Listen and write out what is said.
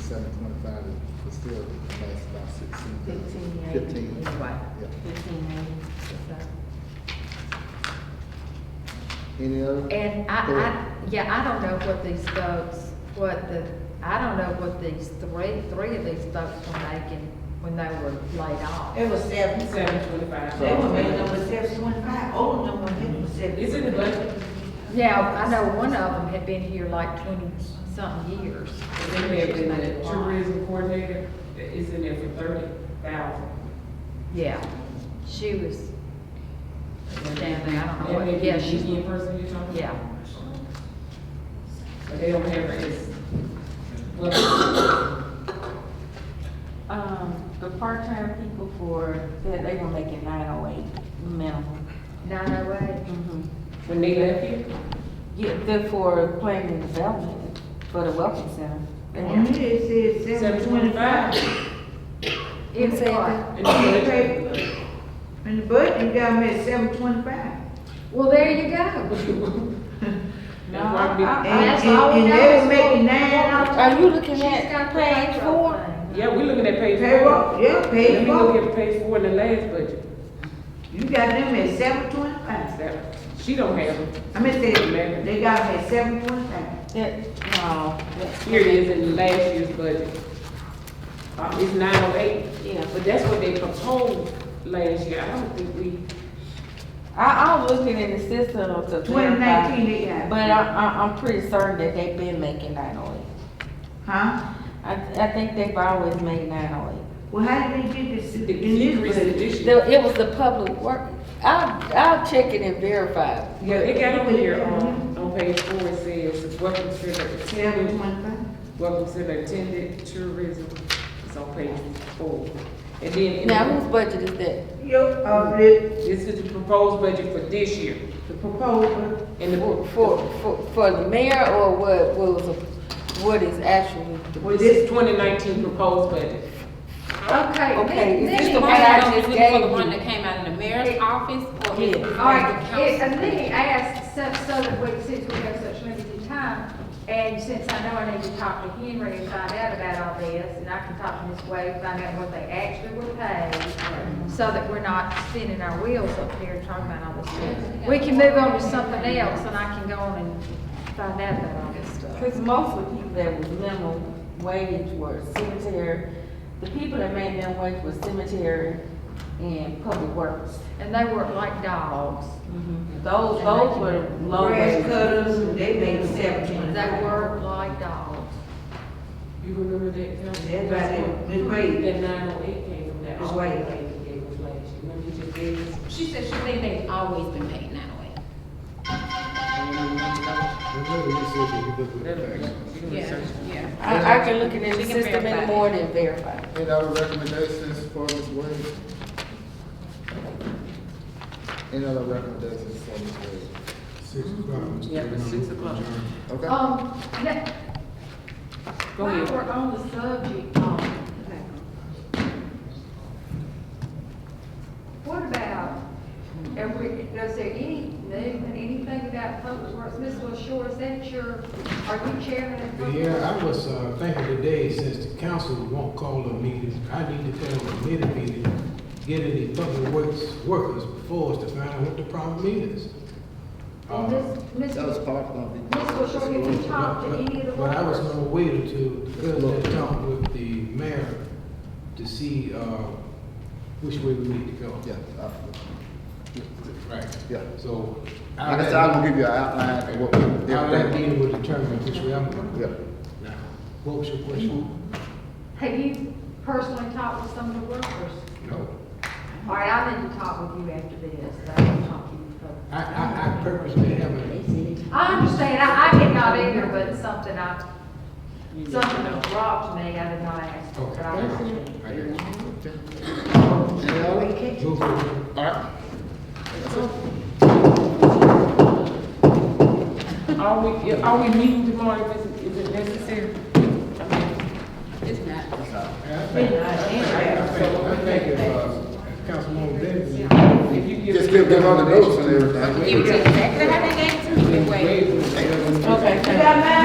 seven twenty-five is still last about sixteen. Fifteen eighty. Fifteen. Right, Yeah. fifteen eighty. Any other? And I, Go ahead. I, yeah, I don't know what these folks, what the, I don't know what these three, three of these folks were making when they were laid off. It was seven, Seven twenty-five. they were made number seven twenty-five, old number, it was seven. Is it the budget? Yeah, I know one of them had been here like twenty-something years. They may have been the tourism coordinator, it's in there for thirty thousand. Yeah, she was down there, I don't know what, yeah, she's she, in person you're talking about? yeah. But they don't have her as. well, Um, the part-time people for, that they were making nine oh eight minimum. Nine oh eight, Mhm. When they left here, Yeah, they're for planning and development, for the welcome center. And it is said seven seven twenty-five. twenty-five. it was like, And they left. And the budget, you got them at seven twenty-five. well, there you go. That's why we- I- And, I- Uh, That's all and, we and got they is were making what- nine out Are you looking She's at got the page four? thing. Yeah, we looking at page four. payroll, yeah, Let me look payroll. at page four in the last budget. You got them at seven twenty-five. That- She don't have it. I mean, they, they got them at seven twenty-five. That, no, that, Here it is in the last year's budget. Uh, it's nine oh eight, yeah. but that's what they proposed last year. I don't think we, I, I was looking in the system of the Twenty nineteen, they got. But uh, I, I, I'm pretty certain that they've been making nine oh eight. Huh? I, I think they've always made nine oh eight. Well, how did they get this in the decrease this in budget? this year. The- It was the public work, I'll, I'll check it and verify. Yeah, it got over here Mm-hmm. on, on page four, it says, welcome center Seven attended, twenty-five? welcome center attended tourism. It's on page four. And then. in Now, the- whose budget is that? Yo, uh, the, This is the proposed budget for this year. the proposal, And the, For, for, for the mayor or what was, what is actually? well, this is twenty nineteen proposed budget. Okay. Okay, let- is this let the me one I ask- just gave you? came out of the mayor's office or Yeah. All right, it- and then he asked, so, so that we, since we have such limited time, and since I know I need to talk to Henry and find out about all this, and I can talk to Ms. Wade, find out what they actually were paid, so that we're not spinning our wheels up here talking about all this stuff. We can move on to something else, and I can go on and find out about all this stuff. Cause most of the people that was minimum wage were cemetery, the people that made minimum wage were cemetery and public works. And they work like dogs. Those, those were low grass wage. cutters, and they made seven They twenty-five. work like dogs. You remember that? That's right, Miss Wade. That nine oh eight came from that. Miss Wade. All the lady gave us last year. Remember you just gave us? She said she think they've always been paid nine oh eight. Remember you said that you look with the facts. You can research. yeah. I, I can look at the She can system in verify the it. morning and verify. Any other recommendations for Ms. Wade? Any other recommendations for Ms. Wade? Six o'clock. Yeah, it was six o'clock. Okay? Um, now, Go while ahead. we're on the subject, um, what about, and we, is there any movement, anything about public works, Ms. LaShaw, is that your, are you chairman of public? Yeah, Works? I was uh, thinking today, since the council won't call a meeting, I need to tell a committee meeting, get any public works workers before us to find out what the problem is. And Uh, Ms., Ms. That was Ms. part of the. LaShaw, have you talked to any of the But but I was workers? gonna wait until the president talked with the mayor to see uh, which way we need to go. Yeah, uh, Right. yeah. So. Like I said, I'm gonna give you an outline of what, we- Now, that everything. meeting will determine which way I'm going. Yeah. Now, What was your question? Have you personally talked with some of the workers? Mm-hmm. No. All right, I need to talk with you after this, I will talk to you. first. I, I, I purposely haven't, I understand, I, I did not either, but something I, You need to something know. that robbed me, I did not ask for, but I robbed me. I got Any other? you. Move forward. All right. Are we, are we meeting tomorrow if it's, is it necessary? It's not. I think, I think, I think if, uh, Councilwoman Bennett, If you give. Just give them all the notes and everything. Give it to exactly how they gave it to me, wait. waive the Okay. You got mine?